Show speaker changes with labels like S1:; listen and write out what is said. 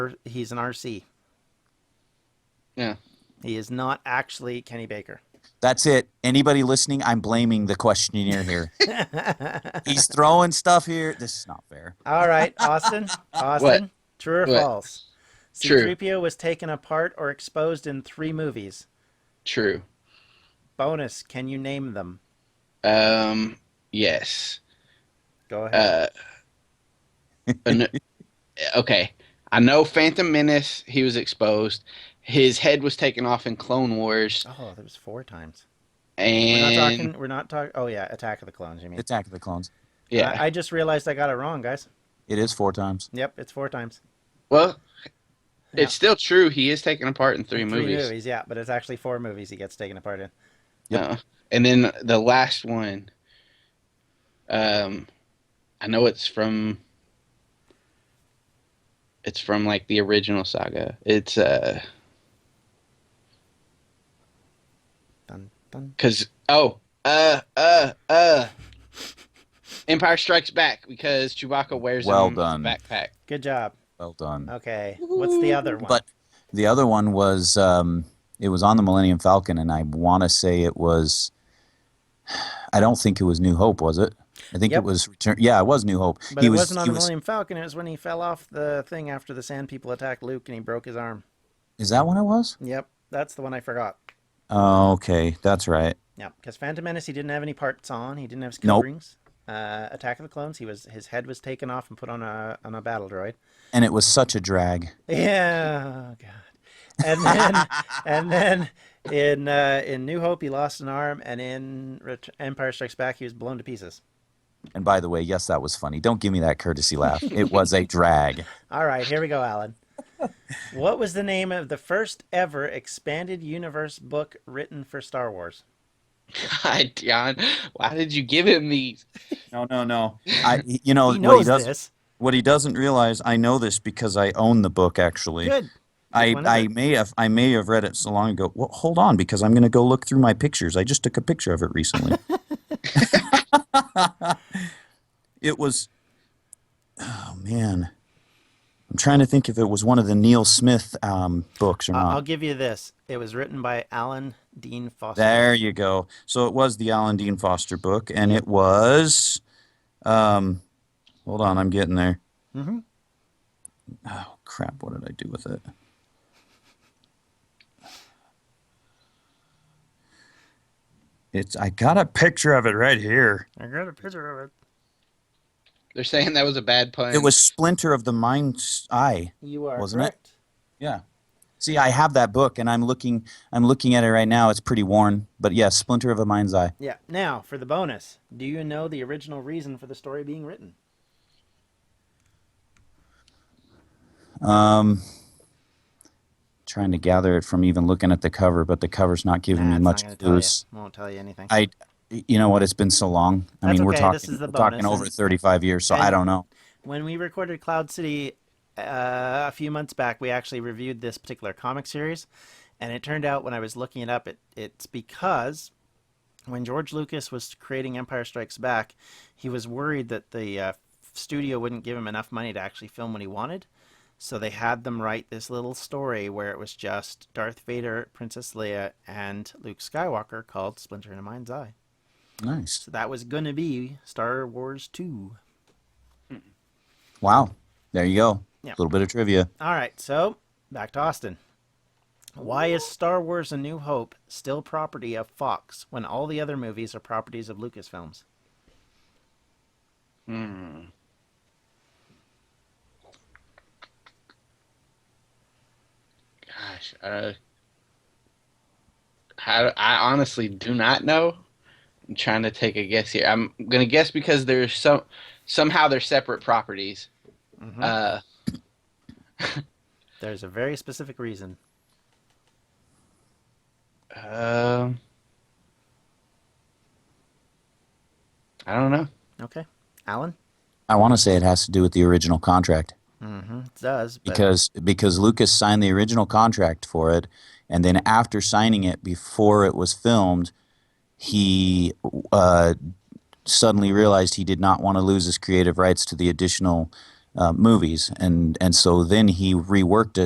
S1: he's an RC.
S2: Yeah.
S1: He is not actually Kenny Baker.
S3: That's it. Anybody listening, I'm blaming the questionnaire here. He's throwing stuff here. This is not fair.
S1: All right, Austin. Austin, true or
S2: What?
S1: false?
S2: True.
S1: C3PO was taken apart or exposed in three movies.
S2: True.
S1: Bonus, can you name them?
S2: Um, yes.
S1: Go ahead.
S2: Uh, an- okay. I know Phantom Menace, he was exposed. His head was taken off in Clone Wars.
S1: oh, there was four times. We're not
S2: And
S1: talking. We're not talking. Oh yeah, Attack of the Clones. You mean?
S3: Attack of the Clones.
S2: yeah.
S1: I, I just realized I got it wrong, guys.
S3: It is four times.
S1: Yep, it's four times.
S2: well,
S1: Yeah.
S2: it's still true. He is taken apart in three, movies.
S1: yeah, but it's actually four movies he gets taken apart in.
S3: Yep.
S2: Uh, and then the last one, um, I know it's from, it's from like the original saga. It's uh,
S1: Dun dun.
S2: cause oh, uh, uh, uh, Empire Strikes Back because Chewbacca wears
S3: Well
S2: him as a
S3: done.
S2: backpack.
S1: Good job.
S3: Well done.
S1: Okay, what's the other one?
S3: But the other one was um, it was on the Millennium Falcon, and I want to say it was. I don't think it was New Hope, was it? I think
S1: Yep.
S3: it was Return. Yeah, it was New Hope.
S1: But
S3: he
S1: it
S3: was.
S1: wasn't on
S3: he
S1: the
S3: was-
S1: Millennium Falcon. It was when he fell off the thing after the Sand People attacked Luke and he broke his arm.
S3: Is that when it was?
S1: Yep, that's the one I forgot.
S3: Oh, okay, that's right.
S1: Yep, because Phantom Menace, he didn't have any parts on. He didn't have his
S3: Nope.
S1: coverings. Uh, Attack of the Clones, he was his head was taken off and put on a on a battle droid.
S3: And it was such a drag.
S1: Yeah, oh God. And then, and then in uh, in New Hope, he lost an arm, and in Ret- Empire Strikes Back, he was blown to pieces.
S3: And by the way, yes, that was funny. Don't give me that courtesy laugh. It was a drag.
S1: All right, here we go, Alan. What was the name of the first ever expanded universe book written for Star Wars?
S2: God, John, why did you give him these?
S3: No, no, no. I, you know
S1: He
S3: what he
S1: knows
S3: does.
S1: this.
S3: What he doesn't realize, I know this because I own the book. Actually,
S1: Good.
S3: I,
S1: Which one is
S3: I
S1: it?
S3: may have I may have read it so long ago. Well, hold on, because I'm going to go look through my pictures. I just took a picture of it recently. it was, oh man, I'm trying to think if it was one of the Neil Smith um, books or
S1: I-
S3: not.
S1: I'll give you this. It was written by Alan Dean Foster.
S3: There you go. So it was the Alan Dean Foster book, and it was. Um, hold on, I'm getting there.
S1: Mhm.
S3: Oh crap! What did I do with it? It's. I got a picture of it right here.
S1: I got a picture of
S2: They're saying that was a bad pun.
S3: It was Splinter of the Mind's Eye.
S1: it. You are
S3: Wasn't it?
S1: correct.
S3: Yeah. See, I have that book, and I'm looking. I'm looking at it right now. It's pretty worn, but yeah, Splinter of a Mind's Eye.
S1: Yeah. Now for the bonus. Do you know the original reason for the story being written?
S3: Um, trying to gather it from even looking at the cover, but the cover's not
S1: Nah,
S3: giving me
S1: it's not
S3: much
S1: gonna tell you.
S3: clues.
S1: Won't tell you anything.
S3: I, you know what? It's been so long. I
S1: That's
S3: mean, we're
S1: okay,
S3: talking
S1: this is the
S3: we're talking
S1: bonus,
S3: over
S1: and-
S3: 35 years, so I
S1: and-
S3: don't know.
S1: When we recorded Cloud City uh, a few months back, we actually reviewed this particular comic series, and it turned out when I was looking it up, it, it's because when George Lucas was creating Empire Strikes Back, he was worried that the uh, studio wouldn't give him enough money to actually film what he wanted. So they had them write this little story where it was just Darth Vader, Princess Leia, and Luke Skywalker called Splinter in a Mind's Eye.
S3: Nice.
S1: So that was going to be Star Wars 2.
S3: Wow. There you go. A
S1: Yeah.
S3: little bit of trivia.
S1: All right, so back to Austin. Why is Star Wars A New Hope still property of Fox when all the other movies are properties of Lucasfilms?
S2: Hmm. Gosh, uh, how, I honestly do not know. I'm trying to take a guess here. I'm gonna guess because there's some somehow they're separate properties.
S1: Mhm.
S2: Uh,
S1: There's a very specific reason.
S2: um, I don't know.
S1: Okay, Alan.
S3: I want to say it has to do with the original contract
S1: Mm-hmm. It does, but
S3: because because Lucas signed the original contract for it, and then after signing it, before it was filmed, he uh, suddenly realized he did not want to lose his creative rights to the additional uh, movies, and and so then he reworked it.